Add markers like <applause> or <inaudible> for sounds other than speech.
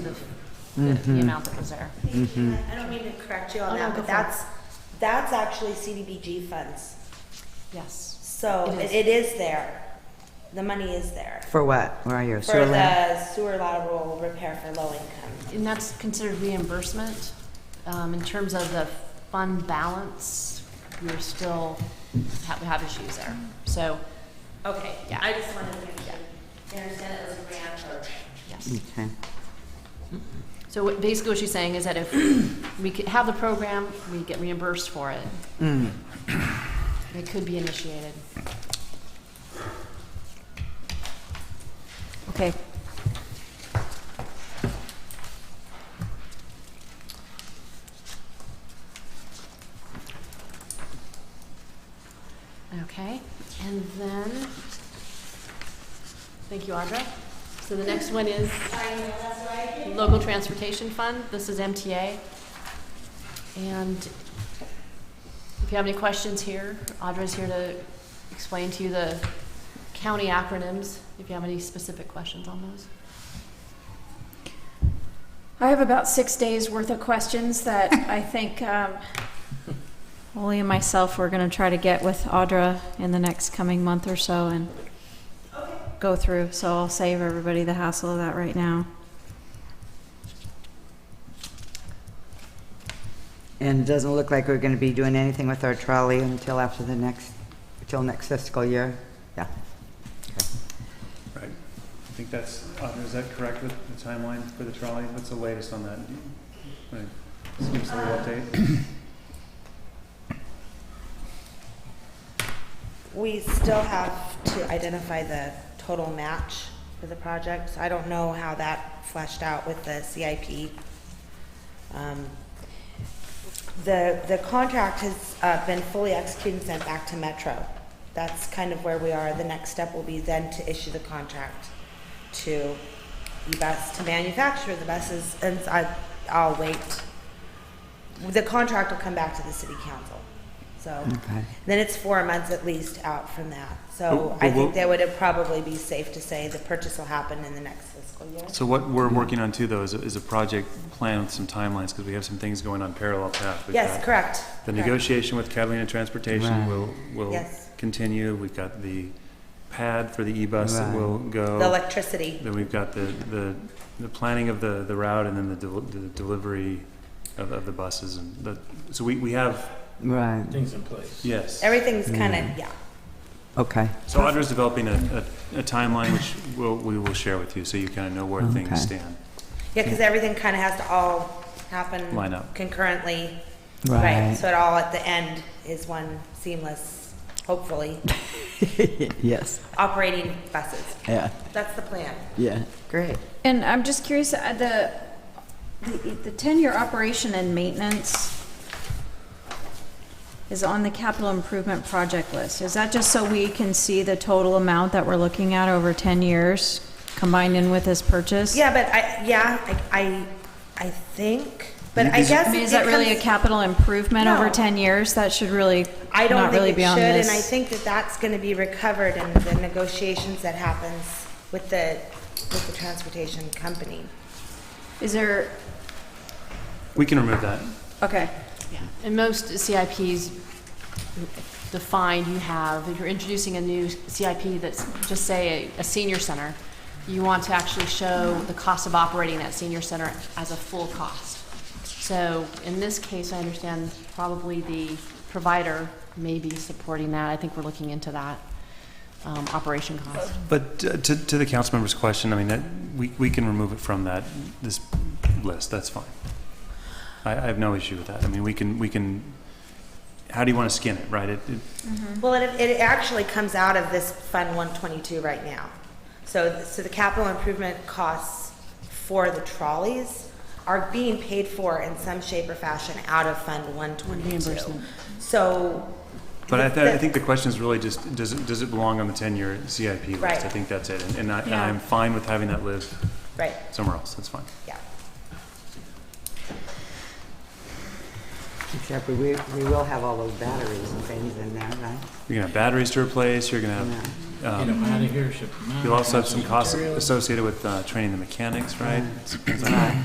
of the the amount that was there. I don't mean to correct Mm-hmm. you Oh, on no, go that, but for it. that's, that's actually CDBG funds. Yes. So It is. it it is there. The money is there. For what? Where are you? For Sewer lamp? the sewer lateral repair for low income. And that's considered reimbursement. Um, in terms of the fund balance, we're still, ha- we have issues there. So, Okay, Yeah. I just wanted to make sure you understand it was a grant program. yes. Okay. So what- basically what she's saying is that if we could have the program, we get reimbursed for it. Mm. It could be initiated. Okay. Okay, and then, thank you, Audra. So the next one is Local Transportation Fund. This is MTA. And if you have any questions here, Audra's here to explain to you the county acronyms, if you have any specific questions on those. I have about six days worth of questions <laughs> that I think um, Ollie and myself are going to try to get with Audra in the next coming month or so and go through. So I'll save everybody the hassle of that right now. And it doesn't look like we're going to be doing anything with our trolley until after the next, until next fiscal year. Yeah. Right. I think that's, Audra, is that correct with the timeline for the trolley? What's the latest on that? Do you- Right. Just Give us a little update. We still have to identify the total match for the project. So I don't know how that fleshed out with the CIP. Um, The, the contract has uh, been fully executed and sent back to Metro. That's kind of where we are. The next step will be then to issue the contract to bus to manufacture the buses, and I, I'll wait. The contract will come back to the city council, so. Okay. Then it's four months at least out from that. So But- but I think what- that would probably be safe to say the purchase will happen in the next fiscal year. So what we're working on too, though, is, a- is a project plan with some timelines, because we have some things going on parallel path. We've Yes, got correct. The correct. negotiation with Catalina Transportation Right. will, will Yes. continue. We've got the pad for the e-bus that Right. will go. The electricity, Then we've got the, the, the planning of the, the route and then the, del- the delivery of, of the buses and the, so we, we have, Right. things in place. yes. everything's kind of, yeah. Okay. So Audra's developing a, a, a timeline which we'll, we will share with you, so you kind of know where Okay. things stand. Yeah, because everything kind of has to all happen. Line up. Concurrently. Right. So it all at the end is one seamless, hopefully, <laughs> yes. operating buses. Yeah. That's the plan. Yeah. Great. And I'm just curious, uh, the, the, the ten-year operation and maintenance is on the capital improvement project list. Is that just so we can see the total amount that we're looking at over ten years combined in with this purchase? Yeah, but I, yeah, I, I I think, but I Is- guess. I mean, is it that really a comes- capital improvement over No. ten years? That should really, I don't not really think it be on should, this. and I think that that's gonna be recovered in the negotiations that happens with the, with the transportation company. Is there, We can remove that. okay. Yeah, and most CIPs defined you have, if you're introducing a new CIP that's, just say, a a senior center, you want to actually show the cost of operating that senior center as a full cost. So in this case, I understand probably the provider may be supporting that. I think we're looking into that, um, operation cost. But uh, to, to the council member's question, I mean, that, we, we can remove it from that, this list, that's fine. I, I have no issue with that. I mean, we can, we can, how do you want to skin it, right? It, it- Hmm. Well, it, it actually comes out of this Fund one twenty-two right now. So, so the capital improvement costs for the trolleys are being paid for in some shape or fashion out of Fund one twenty-two. Reimbursement. So. But I, the- th- I think the question is really just, does it, does it belong on the ten-year CIP list? Right. I think that's it, and, and I, and Yeah. I'm fine with having that live Right, somewhere else, that's fine. yeah. Except we, we will have all those batteries and things in there, right? You're gonna have batteries to replace, you're gonna Yeah. have, Get um, them out of here, ship 'em out, you'll also have some some costs materials. associated with, uh, training the mechanics, right? Things like that. Right.